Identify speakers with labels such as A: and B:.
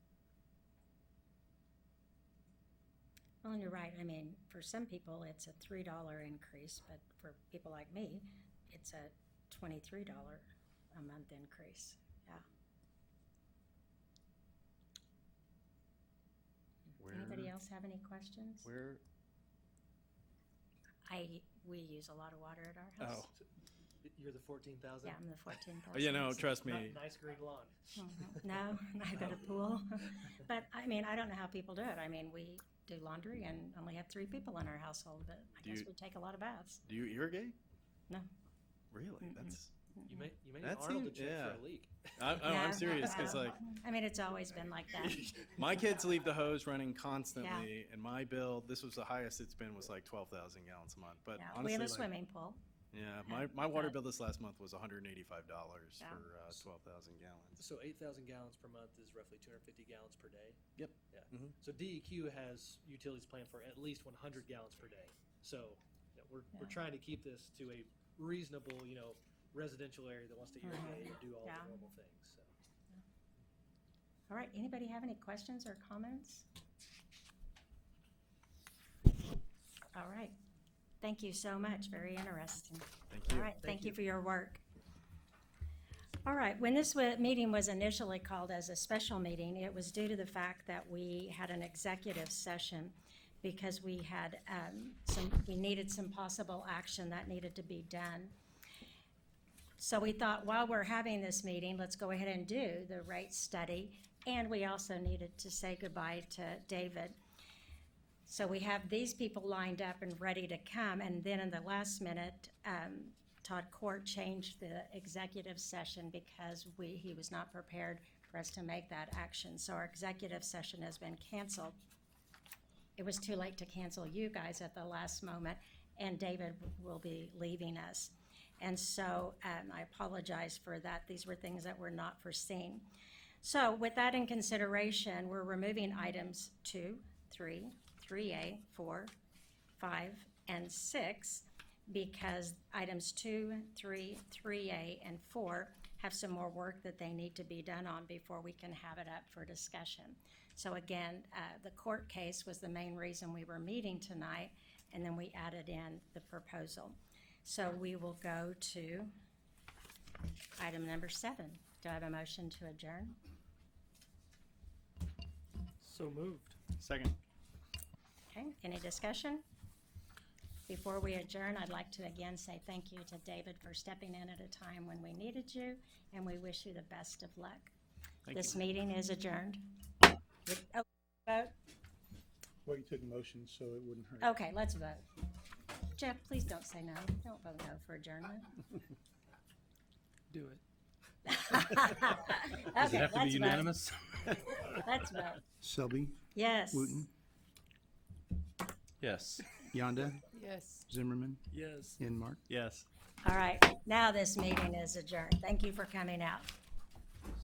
A: Well, and you're right. I mean, for some people, it's a three dollar increase, but for people like me, it's a twenty-three dollar a month increase. Yeah. Anybody
B: Where-
A: else have any questions?
B: Where,
A: I, we use a lot of water at
B: Oh.
A: our house.
C: You're the fourteen thousand.
A: Yeah, I'm the fourteen thousand. Oh,
B: you know, trust me,
C: Nice green lawn.
A: Mm-hmm. No, I've got a pool. But I mean, I don't know how people do it. I mean, we do laundry and only have three people in our household, but I
B: Do
A: guess
B: you-
A: we take a lot of baths.
B: do you irrigate?
A: No.
B: Really? That's,
C: You may you may need
B: That's
C: Arnold to
B: it,
C: check
B: yeah.
C: for a leak.
B: I, oh,
A: Mm-hmm. Yeah.
B: I'm serious, cause like,
A: I mean, it's always been like that.
B: my kids leave the hose running constantly, and my bill, this was the highest it's been, was like twelve thousand gallons a month, but
A: Yeah, We
B: honestly,
A: have a
B: like-
A: swimming pool.
B: Yeah, my, my water
A: but-
B: bill this last month was hundred and eighty-five dollars
A: Yeah.
B: for, uh, twelve thousand gallons.
C: So eight thousand gallons per month is roughly two hundred fifty gallons per day.
B: Yep.
C: Yeah.
B: Mhm.
C: So DEQ has utilities planned for at least one hundred gallons per day. So you know, we're
A: Yeah.
C: we're trying to keep this to a reasonable, you know, residential area that wants to irrigate and do all
A: Mm-hmm. Yeah.
C: the normal things. So.
A: All right, anybody have any questions or comments? All right, thank you so much, very interesting.
B: Thank
A: All
B: you.
A: right, thank you
C: you.
A: for your work. All right, when this wa- meeting was initially called as a special meeting, it was due to the fact that we had an executive session because we had um, some, we needed some possible action that needed to be done. So we thought, while we're having this meeting, let's go ahead and do the rate study. And we also needed to say goodbye to David. So we have these people lined up and ready to come. And then in the last minute, um, Todd Court changed the executive session because we, he was not prepared for us to make that action. So our executive session has been canceled. It was too late to cancel you guys at the last moment, and David will be leaving us. And so um, I apologize for that. These were things that were not foreseen. So with that in consideration, we're removing items two, three, three A, four, five, and six because items two, three, three A, and four have some more work that they need to be done on before we can have it up for discussion. So again, uh, the court case was the main reason we were meeting tonight, and then we added in the proposal. So we will go to item number seven. Do I have a motion to adjourn?
C: So moved.
B: Second.
A: Okay, any discussion? Before we adjourn, I'd like to again say thank you to David for stepping in at a time when we needed you, and we wish you the best of luck.
B: Thank
A: This
B: you.
A: meeting is adjourned. Oh, Vote,
D: Well, you took motion, so it wouldn't hurt.
A: okay, let's vote. Jeff, please don't say no. Don't vote no for adjournment.
C: Do it.
A: Does it have to be unanimous? Let's vote.
D: Selby,
A: Yes.
D: Wooten,
E: Yes.
D: Yonda,
F: Yes.
D: Zimmerman,
C: Yes.
D: Enmark.
E: Yes.
A: All right, now this meeting is adjourned. Thank you for coming out.